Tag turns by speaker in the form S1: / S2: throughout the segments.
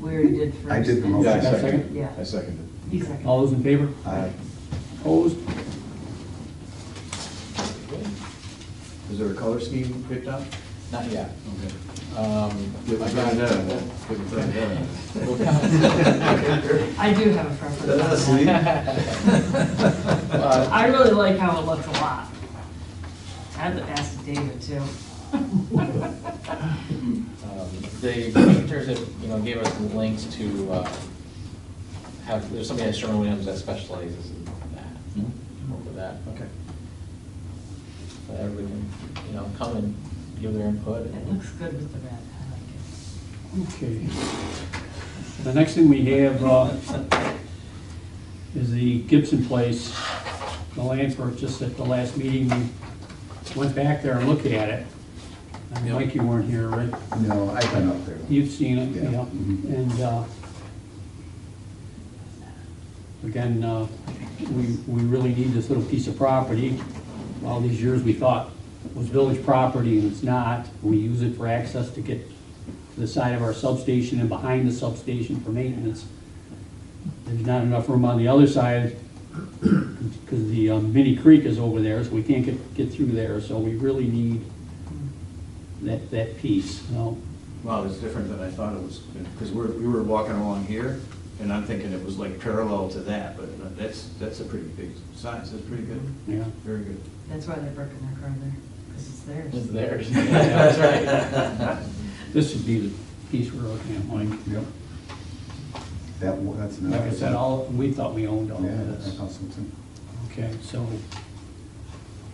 S1: We already did first.
S2: I did the
S1: and
S2: motion.
S3: Yeah, I
S1: second.
S3: second.
S1: Yeah.
S3: I seconded.
S1: He seconded.
S4: All those in favor?
S2: Aye.
S4: Opposed?
S3: Is there a color scheme picked up?
S5: Not yet.
S3: Okay.
S5: Um,
S3: Get
S5: I
S3: it
S5: got-
S3: done, then. Get it done, then.
S5: We'll count.
S1: I do have a preference. on that.
S5: Uh,
S1: I really like how it looks a lot. I had to ask David too.
S5: um, The painters have, you know, gave us links to uh, have, there's somebody at Sherwin-Williams that specializes in that, work with that.
S3: Okay.
S5: So Everybody can, you know, come and give their input.
S1: It looks good with the red. I like it.
S4: Okay. The next thing we have uh, is the Gibson Place, the land purchase at the last meeting. we Went back there and looked at it. I mean, Mike, you weren't here, right?
S2: No, I've been up there.
S4: You've seen it,
S2: Yeah. Mm-hmm.
S4: yeah. And, uh, again, uh, we, we really need this little piece of property. All these years, we thought it was village property, and it's not. We use it for access to get to the side of our substation and behind the substation for maintenance. There's not enough room on the other side, because the um, mini creek is over there, so we can't get, get through there. So we really need that, that piece, you know?
S3: Wow, it's different than I thought it was, because we're, we were walking along here, and I'm thinking it was like parallel to that, but that's, that's a pretty big size, that's pretty good,
S4: Yeah,
S3: very good.
S1: That's why they're broken their car there, because it's theirs.
S5: It's theirs. That's right.
S4: this would be the piece we're looking at, Mike.
S2: Yep. That, wa- that's another.
S4: Like I said, all, we thought we owned all
S2: Yeah,
S4: of
S2: I
S4: this.
S2: thought so too.
S4: Okay, so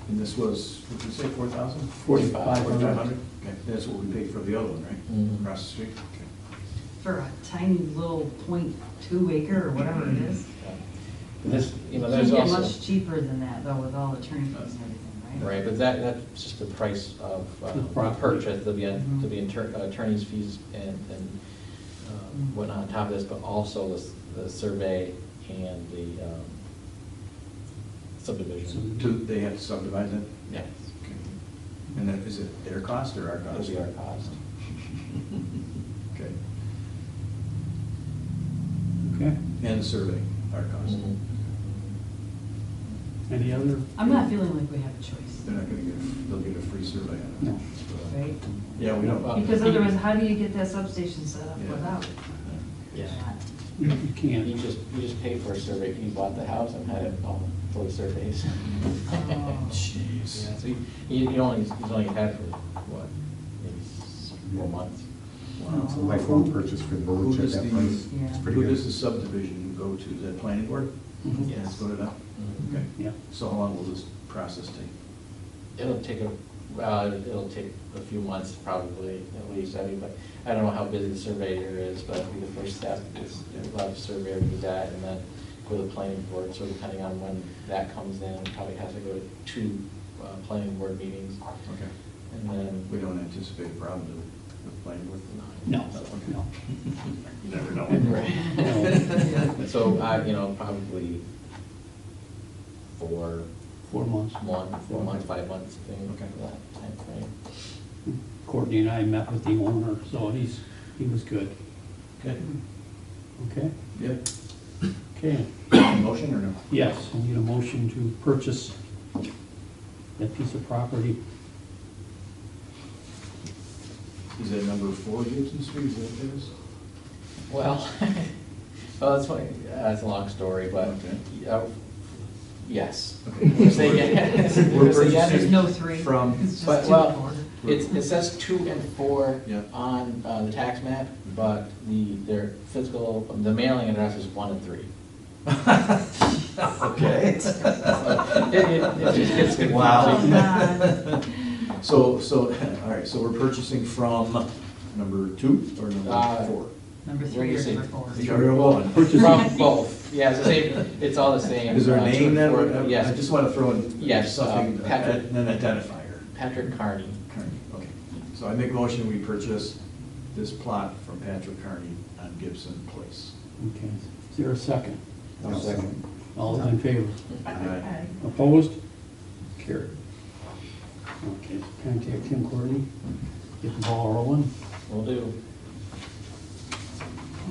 S3: And this was, what did you say, four thousand?
S4: forty-five
S3: Forty-five
S4: hundred.
S3: hundred? Okay, that's what we paid for the other one, right?
S5: Mhm.
S3: Across the street? Okay.
S1: For a tiny little point two acre or whatever it is.
S5: This, you know,
S1: Can't
S5: there's
S1: get
S5: also.
S1: much cheaper than that though with all the attorney fees and everything, right?
S5: Right, but that, that's just the price of uh,
S4: The property.
S5: purchase, there'll be, a-
S1: Mhm.
S5: there'll be inter- uh, attorney's fees and, and um,
S1: Mm.
S5: whatnot on top of this, but also the, s- the survey and the um, subdivision.
S3: Do they have to subdivide that?
S5: Yes,
S3: Okay. And then, is it their cost or our
S5: that'll
S3: cost?
S5: be our cost.
S3: Okay.
S4: Okay,
S3: And the survey, our cost.
S5: Mhm.
S4: any other?
S1: I'm not feeling like we have a choice,
S3: They're not gonna get, they'll get a free survey on it.
S4: No.
S3: So-
S1: right?
S3: Yeah, we don't.
S5: Well,
S1: Because otherwise, how do you get that substation set up
S3: Yeah.
S1: without?
S5: Yeah.
S4: You you
S5: You
S4: can't.
S5: just, you just paid for a survey, you bought the house and had it all for the surveys.
S1: Oh.
S3: Jeez.
S5: Yeah, so you, you only, you only had for, what, maybe s- four months?
S1: Wow.
S3: Oh.
S2: It's a lifelong purchase for the
S3: Who
S2: village at
S3: does
S2: that price.
S3: the,
S1: Yeah.
S2: It's pretty
S3: who
S2: good.
S3: does the subdivision go to? Is that planning board?
S4: Mhm.
S5: Yes.
S3: It's voted out?
S1: Mm-hmm.
S5: Mhm.
S3: Okay.
S4: Yeah.
S3: So how long will this process take?
S5: It'll take a, well, it'll take a few months probably, at least, I mean, but I don't know how busy the surveyor is, but it'll be the first step is we'll have the surveyor do that and then go to the planning board, so depending on when that comes in, it probably has to go to two uh, planning board meetings.
S3: Okay.
S5: And then,
S3: We don't anticipate a problem do we, with planning board?
S4: No, no.
S3: You never know.
S5: Right.
S4: No.
S5: And
S3: uh,
S5: so, I, you know, probably four,
S4: Four months.
S5: one, four months, five months, thing,
S3: Okay.
S5: that timeframe.
S4: Courtney and I met with the owner, so he's, he was good.
S3: Good.
S4: Okay,
S3: Yep.
S4: okay.
S3: Motion or no?
S4: Yes, I need a motion to purchase that piece of property.
S3: Is that number four Gibson Street, is that what it is?
S5: Well, well, that's funny, that's a long story, but,
S3: Okay.
S5: uh, yes.
S3: Okay.
S5: Say yes.
S3: We're
S5: Say yes.
S1: There's no three.
S3: From-
S1: It's
S5: But,
S1: just two and
S5: well,
S1: four.
S5: it's, it says two and four
S3: Yeah. Mm-hmm.
S5: on, uh, the tax map, but the, their physical, the mailing address is one and three.
S3: Okay.
S5: It, it, it just gets confusing.
S3: Wow.
S1: Oh, God.
S3: So, so, all right, so we're purchasing from number two or number
S5: Uh,
S3: four?
S1: Number
S5: What
S1: three
S5: do you
S1: or
S5: say?
S1: number four.
S3: The other one.
S4: Purchase-
S5: From both, yeah, it's the same, it's all the same.
S3: Is there
S5: uh,
S3: a
S5: two
S3: name
S5: and
S3: then?
S5: four,
S3: I- I
S5: Yes,
S3: just want to throw in
S5: Yes, uh,
S3: something,
S5: Patrick.
S3: an identifier.
S5: Patrick Carney.
S3: Kearney, okay. So I make a motion, we purchase this plot from Patrick Kearney on Gibson Place.
S4: Okay, is there a second?
S2: I'll second.
S4: All those in favor?
S3: Aye.
S4: Opposed? Carried. Okay, contact Tim Courtney, get the ball rolling.
S5: Will do.